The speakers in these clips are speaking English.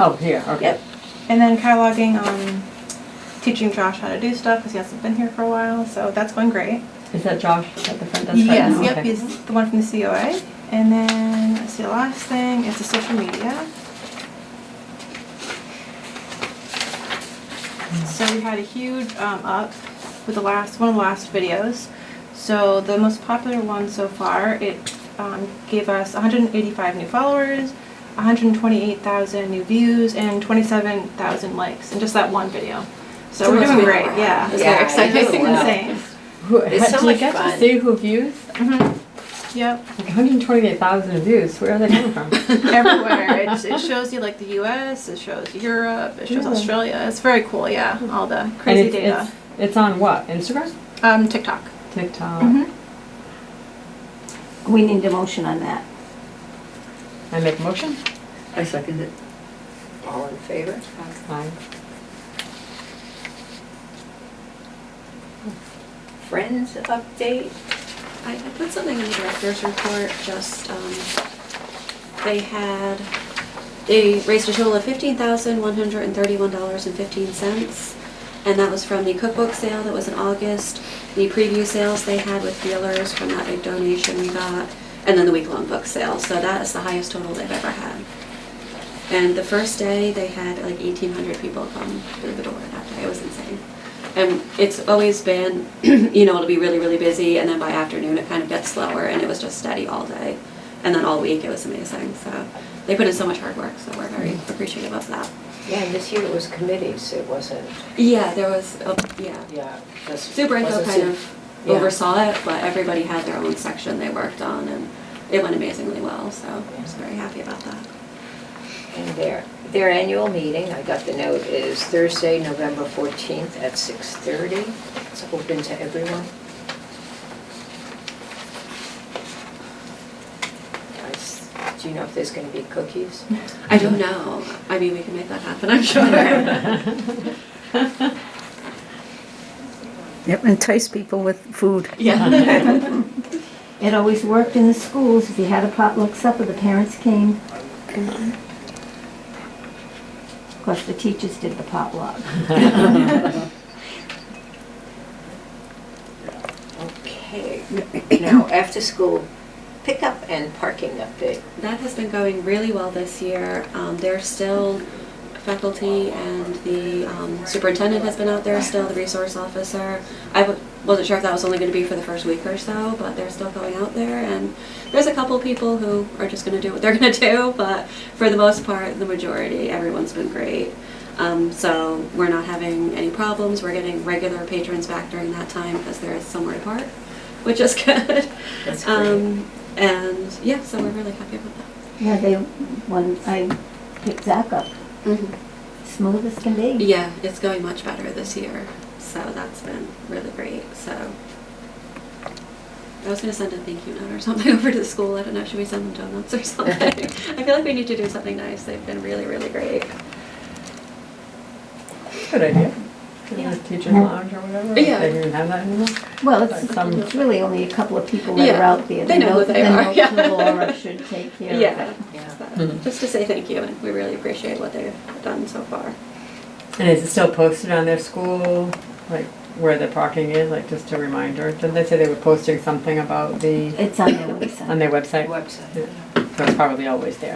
Oh, here, okay. Yep. And then cataloging, um, teaching Josh how to do stuff because he hasn't been here for a while, so that's going great. Is that Josh at the front desk right yes, now? yep, Okay. he's the one from the COA. And then let's see the last thing is the social media. So we had a huge um, up with the last one of the last videos. So the most popular one so far, it um, gave us 185 new followers, 128,000 new views, and 27,000 likes in just that one video. So, So we're it's doing been- great. Yeah, it's Yeah, very exciting. I know. It's insane. Who, It's so do you much get to fun. see who views? Mm-hmm. Yep. Like 128,000 views. Where are they coming from? everywhere. It, it shows you like the U.S., it shows Europe, it shows Really? Australia. It's very cool, yeah. All the and crazy it's, data. It's, it's on what? Instagram? Um, TikTok. TikTok. Mhm. We need a motion on that. I make a motion? I second it. All in favor? Aye. Friends update? I, I put something in the director's report, just, um, they had, they raised a total of fifteen thousand, one hundred and thirty-one dollars and fifteen cents. And that was from the cookbook sale that was in August, the preview sales they had with dealers from that big donation we got, and then the week-long book sale, so that is the highest total they've ever had. And the first day, they had like eighteen hundred people come through the door that day, it was insane. And it's always been, you know, it'll be really, really busy, and then by afternoon, it kind of gets slower, and it was just steady all day. And then all week, it was amazing, so they put in so much hard work, so we're very appreciative of that. Yeah, and this year it was committees, it wasn't, Yeah, there was, a- yeah. yeah. this Superintendent wasn't kind su- of yeah. oversaw it, but everybody had their own section they worked on, and it went amazingly well, so I was very happy about that. And their, their annual meeting, I got the note, is Thursday, November 14th at 6:30. It's open to everyone. I s- Do you know if there's going to be cookies? I don't know, I mean, we can make that happen, I'm sure. Yep, entice people with food. Yeah. It always worked in the schools. If you had a potluck supper, the parents came. Of course, the teachers did the potluck. Okay. Now, after-school pickup and parking update. That has been going really well this year. Um, There's still faculty and the um, superintendent has been out there still, the resource officer. I w- wasn't sure if that was only going to be for the first week or so, but they're still going out there. And there's a couple people who are just going to do what they're going to do, but for the most part, the majority, everyone's been great. Um, So we're not having any problems. We're getting regular patrons back during that time because there is somewhere to park, which is good. That's great. Um, And yeah, so we're really happy about that. Yeah, they, when I picked Zach up, Mm-hmm. smooth as can be. Yeah, it's going much better this year, so that's been really great. So I was gonna send a thank you note or something over to the school. I don't know, should we send them donuts or something? I feel like we need to do something nice. They've been really, really great. Good idea. The teacher's lounge or whatever. Yeah. They don't even have that anymore. Well, it's, Like some- it's really only a couple of people that Yeah, are out there. they know who they are, yeah. Then Laura should take care of it. Yeah. Mm-hmm. Yeah. So, Just to say thank you, and we really appreciate what they've done so far. And is it still posted on their school, like where the parking is, like just a reminder? Didn't they say they were posting something about the, It's on their on website. their website? Website. Yeah. So it's probably always there.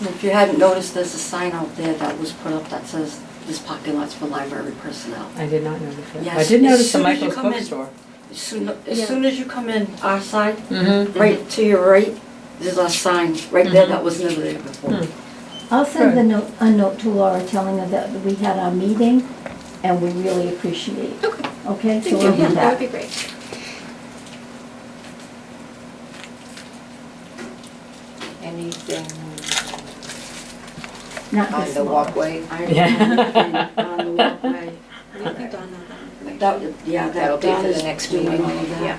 If you hadn't noticed, there's a sign out there that was put up that says, this parking lot's for library personnel. I did not notice that. I Yes, did as notice the soon as you Michael's come in. bookstore. As soon, as Yeah. soon as you come in our side, Mm-hmm. right to your right, there's a sign right there that was never there before. Hmm. I'll send the note, a note to Laura telling her that we had our meeting and we really appreciate it. Okay. Okay, Thank so you. we'll Yeah, do that would be that. great. Anything Not on this the Laura. walkway? I don't Yeah. know anything on the walkway. I don't think Dawn had that information. That, yeah, That'll that be Don for is the next doing meeting, all of that. yeah.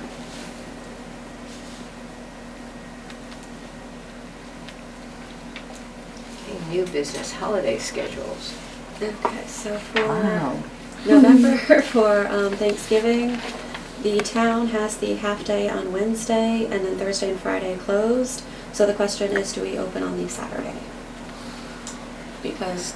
Okay, New business holiday schedules. Okay, so for. Wow. November for um, Thanksgiving. The town has the half day on Wednesday and then Thursday and Friday closed. So the question is, do we open on the Saturday? because